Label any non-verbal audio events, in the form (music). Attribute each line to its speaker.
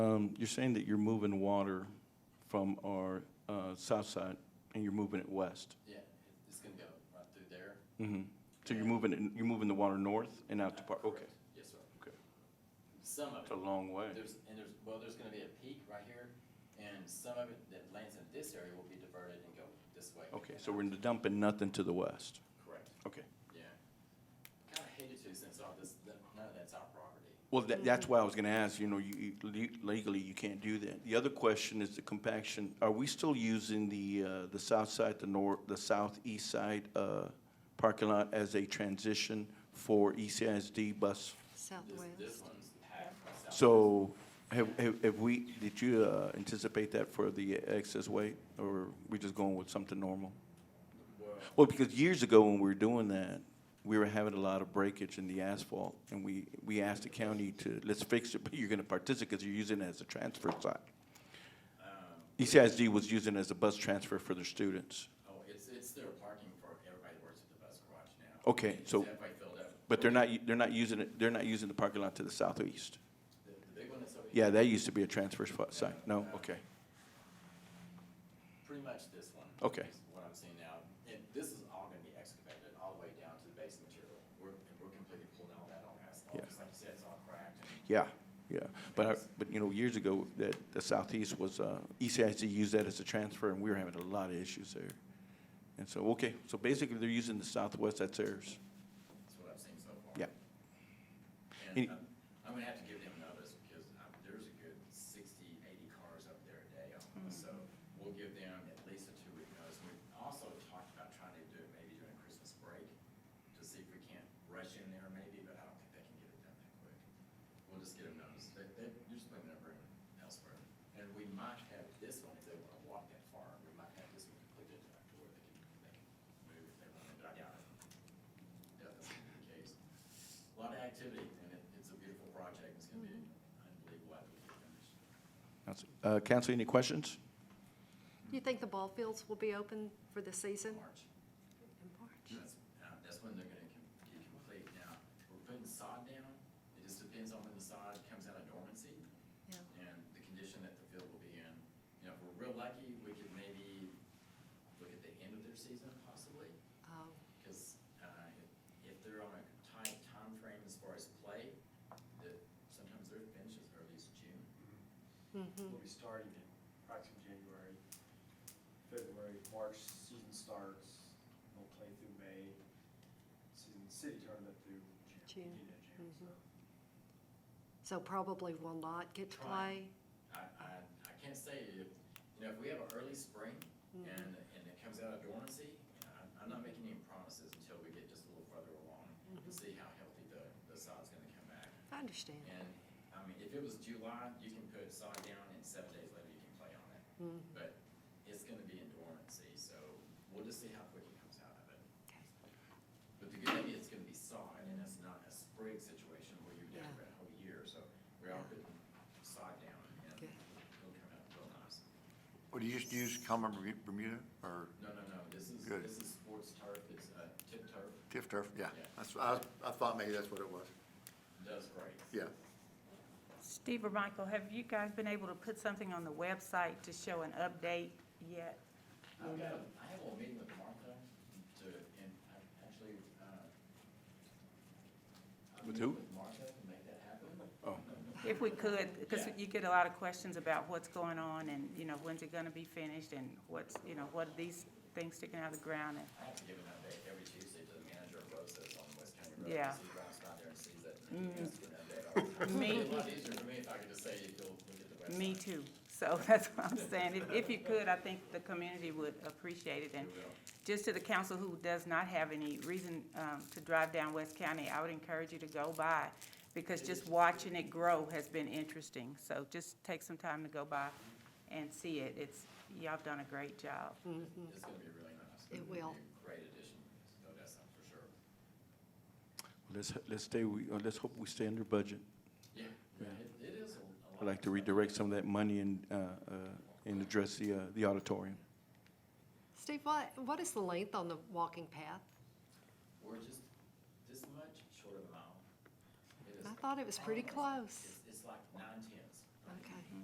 Speaker 1: Um, You're saying that you're moving water from our uh, south side and you're moving it west.
Speaker 2: Yeah, it- it's gonna go right through there.
Speaker 1: Mhm. So you're moving, it- you're moving the water north and out to Park, okay.
Speaker 2: Correct. Yes, sir.
Speaker 1: Okay.
Speaker 2: Some of
Speaker 1: It's a
Speaker 2: it,
Speaker 1: long way.
Speaker 2: there's, and there's, well, there's gonna be a peak right here, and some of it that lands in this area will be diverted and go this way.
Speaker 1: Okay, so we're dumping nothing to the west.
Speaker 2: Correct,
Speaker 1: Okay.
Speaker 2: yeah. Kinda hated to since all this, that- none of that's our property.
Speaker 1: Well, that, that's why I was gonna ask, you know, you, you- le- legally, you can't do that. The other question is the compaction. Are we still using the, uh, the south side, the north, the southeast side, uh, parking lot as a transition for E ECISD bus?
Speaker 2: This, this
Speaker 3: Southwest.
Speaker 2: one's half. by south.
Speaker 1: So have, have, have we, did you, uh, anticipate that for the excess weight? Or we just going with something normal?
Speaker 2: Well,
Speaker 1: Well, because years ago when we were doing that, we were having a lot of breakage in the asphalt, and we, we asked the county to, let's fix it, but you're gonna participate, because you're using it as a transfer site. E
Speaker 2: um,
Speaker 1: ECISD was using it as a bus transfer for their students,
Speaker 2: oh, it's, it's their parking for everybody that works at the bus garage now.
Speaker 1: Okay,
Speaker 2: It's
Speaker 1: so-
Speaker 2: halfway filled up.
Speaker 1: but they're not, they're not using it, they're not using the parking lot to the southeast.
Speaker 2: The, the big one that's over here,
Speaker 1: Yeah, that used to be a transfer spot site, no, okay,
Speaker 2: pretty much this one.
Speaker 1: Okay.
Speaker 2: is What I'm seeing now, and this is all gonna be excavated all the way down to the base material. We're, and we're completely pulling all that on asphalt,
Speaker 1: Yeah.
Speaker 2: just like you said, it's all cracked. and-
Speaker 1: yeah, yeah. But I, but you know, years ago, that, the southeast was, uh, ECISD used that as a transfer, and we were having a lot of issues there. And so, okay, so basically, they're using the southwest, that's theirs.
Speaker 2: That's what I've seen so far.
Speaker 1: Yeah.
Speaker 2: And
Speaker 1: Any-
Speaker 2: I'm, I'm gonna have to give them notice because um, there's a good sixty, eighty cars up there a day almost. So we'll give them at least a two-week notice. We also talked about trying to do it maybe during Christmas break to see if we can't rush in there maybe, but I don't think they can get it done that quick. We'll just get them notice. They, they, you're just moving everyone elsewhere. And we might have this one if they wanna walk that far. We might have this one completed after where they can, they can move if they want to, but I doubt it. Doubt that's gonna be the case. A lot of activity, and it, it's a beautiful project, it's gonna be unbelievable after we get finished.
Speaker 1: Counsel- Uh, counsel, any questions?
Speaker 3: You think the ball fields will be open for the season?
Speaker 2: March, that's, uh, that's when they're gonna com- get complete now. We're putting sod down, it just depends on when the sod comes out of dormancy
Speaker 3: Yeah.
Speaker 2: and the condition that the field will be in. You know, if we're real lucky, we could maybe look at the end of their season possibly,
Speaker 3: Oh,
Speaker 2: because, uh, if- if they're on a tight time frame as far as play, that sometimes their finish is early as June.
Speaker 3: mhm.
Speaker 4: We'll be starting in approximately January, February, March, season starts, we'll play through May, season, city tournament through June.
Speaker 3: June,
Speaker 4: beginning of June, so.
Speaker 3: So probably will not get to play?
Speaker 2: I, I, I can't say if, you know, if we have an early spring
Speaker 3: Mm-hmm.
Speaker 2: and, and it comes out of dormancy, you know, I'm, I'm not making any promises until we get just a little further along and see how healthy the, the sod's gonna come back.
Speaker 3: I understand.
Speaker 2: And, I mean, if it was July, you can put sod down and seven days later you can play on it.
Speaker 3: Mm.
Speaker 2: But it's gonna be in dormancy, so we'll just see how quick it comes out of it.
Speaker 3: Okay.
Speaker 2: But the good thing is it's gonna be sod and it's not a sprig situation where you're down
Speaker 3: Yeah.
Speaker 2: for a whole year, so we are putting sod down and
Speaker 3: Good.
Speaker 2: it'll come out real nice.
Speaker 5: Would you just use common Bermu- Bermuda or
Speaker 2: No, no, no, this is,
Speaker 5: Good.
Speaker 2: this is sports turf, it's uh, tip turf,
Speaker 5: TIF turf? Yeah,
Speaker 2: Yeah.
Speaker 5: that's, I, I thought maybe that's what it was.
Speaker 2: does great.
Speaker 5: Yeah.
Speaker 6: Steve or Michael, have you guys been able to put something on the website to show an update yet?
Speaker 2: I've got, a- I have a meeting with Martha to, and I actually, uh. I'll
Speaker 1: With
Speaker 2: meet
Speaker 1: who?
Speaker 2: With Martha to make that happen.
Speaker 1: Oh.
Speaker 6: If we could, because
Speaker 2: Yeah.
Speaker 6: you get a lot of questions about what's going on and, you know, when's it gonna be finished and what's, you know, what are these things sticking out of the ground and,
Speaker 2: I have to give an update every Tuesday to the manager of Rosa's on West County Road.
Speaker 6: Yeah. Mm.
Speaker 2: She drives by there and sees it. and she asks for an update all the time.
Speaker 6: (laughs) Me-
Speaker 2: It'd be a lot easier for me if I could just say, you'll look at the website.
Speaker 6: Me too. So (laughs) that's what I'm saying. If, if you could, I think the community would appreciate it. And just to the council who does not have any reason, um, to drive down West County, I would encourage you to go by because just watching it grow has been interesting. So just take some time to go by and see it. It's, y'all have done a great job.
Speaker 2: It's gonna be really nice.
Speaker 3: Mm-hmm. It
Speaker 2: It'll be
Speaker 3: will.
Speaker 2: a Great addition, no, that's not for sure.
Speaker 1: Let's, let's stay, we- uh, let's hope we stay under budget.
Speaker 2: Yeah,
Speaker 1: Yeah.
Speaker 2: it, it is a a lot.
Speaker 1: I'd like to
Speaker 2: of stuff.
Speaker 1: redirect some of that money and, uh, uh, and address the, uh, the auditorium.
Speaker 3: Steve, what, what is the length on the walking path?
Speaker 2: We're just this much short of a mile. It is-
Speaker 3: I thought it was pretty
Speaker 2: almost-
Speaker 3: close.
Speaker 2: It's, it's like nine, ten.